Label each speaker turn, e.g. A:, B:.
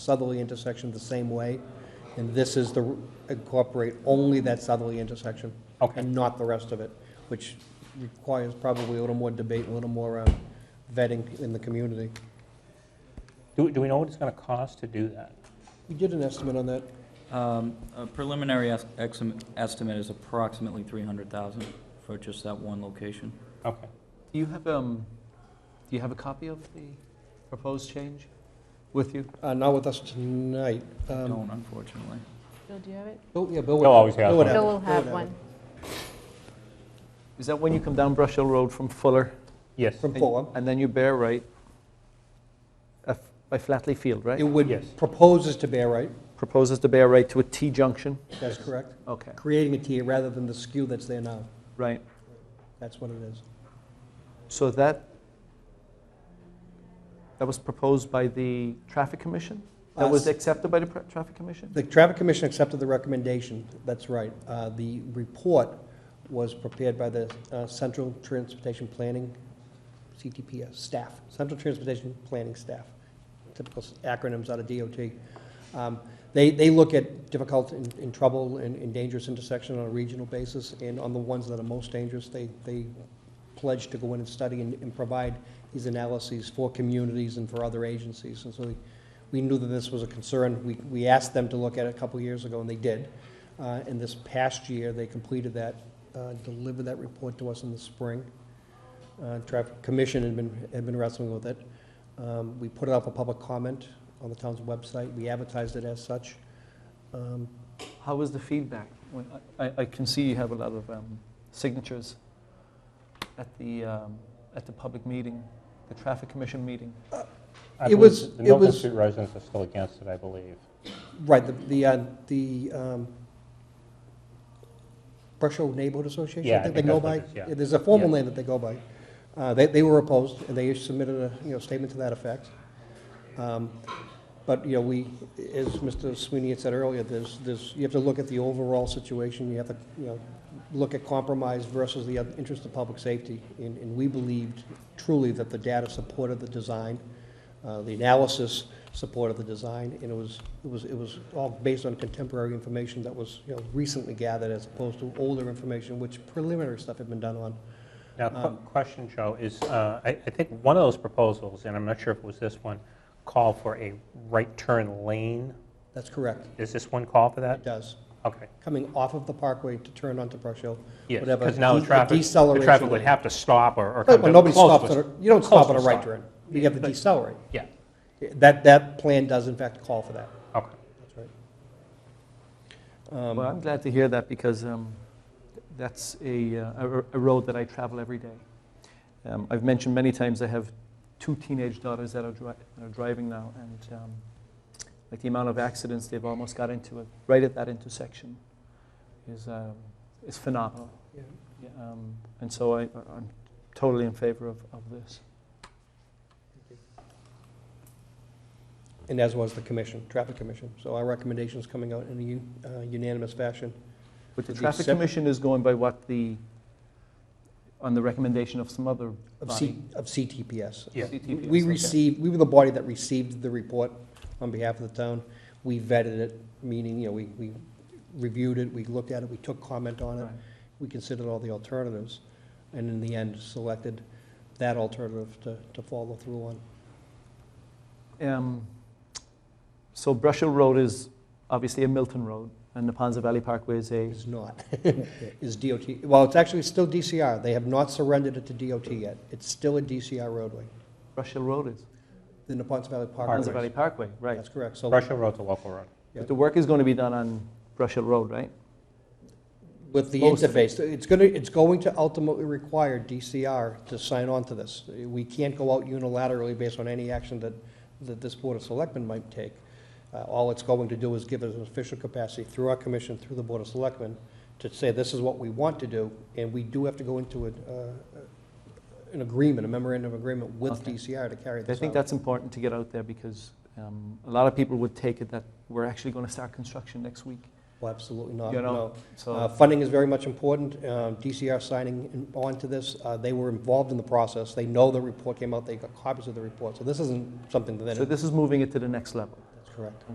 A: southerly intersection the same way, and this is the, incorporate only that southerly intersection.
B: Okay.
A: And not the rest of it, which requires probably a little more debate, a little more um, vetting in the community.
B: Do, do we know what it's going to cost to do that?
A: We did an estimate on that.
C: Um, A preliminary es- exim- estimate is approximately 300,000 for just that one location.
B: Okay.
D: Do you have, um, do you have a copy of the proposed change with you?
A: Uh, Not with us tonight. Um,
C: Don't, unfortunately.
E: Bill, do you have it?
A: Bill- yeah, Bill would.
B: They'll always have
A: Bill would
B: one.
A: it.
E: Bill will
A: Bill
E: have
A: would
E: one.
D: Is that when you come down Brush Hill Road from Fuller?
B: Yes.
A: From
D: and-
A: Fulham.
D: And then you bear right uh, f- by Flatley Field,
A: It
D: right?
A: would,
B: Yes.
A: proposes to bear right,
D: Proposes to bear right to a T junction?
A: that's correct.
D: Okay,
A: Creating a T rather than the skew that's there now.
D: right.
A: That's what it is.
D: So that, that was proposed by the Traffic Commission? That was
A: Uh,
D: accepted by the pra- Traffic Commission?
A: The Traffic Commission accepted the recommendation, that's right. Uh, The report was prepared by the uh, Central Transportation Planning, CTPS, staff, Central Transportation Planning Staff, typical acronyms out of DOT. Um, They, they look at difficult and and trouble and and dangerous intersection on a regional basis, and on the ones that are most dangerous, they, they pledge to go in and study and and provide these analyses for communities and for other agencies, and so they we knew that this was a concern. We, we asked them to look at it a couple years ago, and they did. Uh, And this past year, they completed that, uh, delivered that report to us in the spring. Uh, Traffic Commission had been, had been wrestling with it. Um, We put it up for public comment on the town's website. We advertised it as such. Um,
D: How was the feedback? When- I, I can see you have a lot of um, signatures at the, um, at the public meeting, the Traffic Commission meeting.
B: I
A: It
B: believe
A: was-
B: The
A: it
B: Milton
A: was-
B: Street residents are still against it, I believe.
A: Right, the, the, uh, the um, Brush Hill Neighborhood Association,
B: Yeah,
A: I
B: I
A: think they
B: think
A: go
B: that's what
A: by.
B: it is, yeah.
A: There's a formal
B: Yeah.
A: name that they go by. Uh, They, they were opposed, and they submitted a, you know, statement to that effect. Um, But, you know, we, as Mr. Sweeney had said earlier, there's, there's, you have to look at the overall situation, you have to, you know, look at compromise versus the other interest of public safety. And, and we believed truly that the data supported the design, uh, the analysis supported the design, and it was, it was, it was all based on contemporary information that was, you know, recently gathered as opposed to older information, which preliminary stuff had been done on.
B: Now,
A: Um,
B: qu- question, Joe, is, uh, I I think one of those proposals, and I'm not sure if it was this one, called for a right turn lane.
A: That's correct.
B: Is this one call for
A: It
B: that?
A: does.
B: Okay.
A: Coming off of the parkway to turn onto Brush Hill.
B: Yes,
A: whatever,
B: because now
A: de-
B: the traffic, the
A: deceleration
B: traffic would
A: lane.
B: have to stop or or come
A: Right,
B: to...
A: Well, Oh, nobody
B: close
A: stops,
B: to
A: at
B: a-
A: a- you don't stop
B: close
A: on
B: to
A: a
B: a
A: right
B: stop.
A: turn. You have to decelerate.
B: Yeah,
A: That, that plan does in fact call for that.
B: okay.
A: That's right. Um,
D: Well, I'm glad to hear that because um, that's a, uh, a a road that I travel every day. Um, I've mentioned many times I have two teenage daughters that are, dri- that are driving now, and um, like the amount of accidents they've almost got into it right at that intersection is, um, is phenomenal.
A: Yeah.
D: Yeah, um, And so I, I'm totally in favor of, of this.
A: And as was the commission, traffic commission. So our recommendation's coming out in a u- uh, unanimous fashion.
D: But the
A: With the
D: Traffic
A: excep-
D: Commission is going by what the, on the recommendation of some other
A: Of C,
D: body.
A: of CTPS.
B: Yeah.
D: CTPs,
A: We
D: okay.
A: received, we were the body that received the report on behalf of the town. We vetted it, meaning, you know, we, we reviewed it, we looked at it, we took comment on it.
D: Right.
A: We considered all the alternatives, and in the end, selected that alternative to, to follow through
D: Mm.
A: on.
D: Um, So Brush Hill Road is obviously a Milton Road, and the Ponza Valley Parkway is a,
A: Is not, is DOT, well, it's actually still DCR. They have not surrendered it to DOT yet. It's still a DCR roadway,
D: Brush Hill Road is,
A: the Naponton Valley
D: Ponza Valley
A: Parkway.
D: Parkway, right.
A: That's correct. So
B: Brush Hill Road's a local road.
D: But the work is going to be done on Brush Hill Road, right?
A: with the
D: Most of it.
A: interface, it's gonna, it's going to ultimately require DCR to sign on to this. We can't go out unilaterally based on any action that, that this Board of Selectmen might take. Uh, All it's going to do is give us an official capacity through our commission, through the Board of Selectmen, to say this is what we want to do, and we do have to go into a, uh, an agreement, a memorandum of agreement with
D: Okay.
A: DCR to carry
D: I
A: this out.
D: think that's important to get out there because um, a lot of people would take it that we're actually going to start construction next week,
A: Well, absolutely not,
D: you
A: no.
D: know?
A: Uh,
D: So,
A: Funding is very much important. Uh, DCR signing in- on to this, uh, they were involved in the process. They know the report came out, they got copies of the report. So this isn't something that,
D: so
A: that's
D: this is moving it to the next level.
A: correct.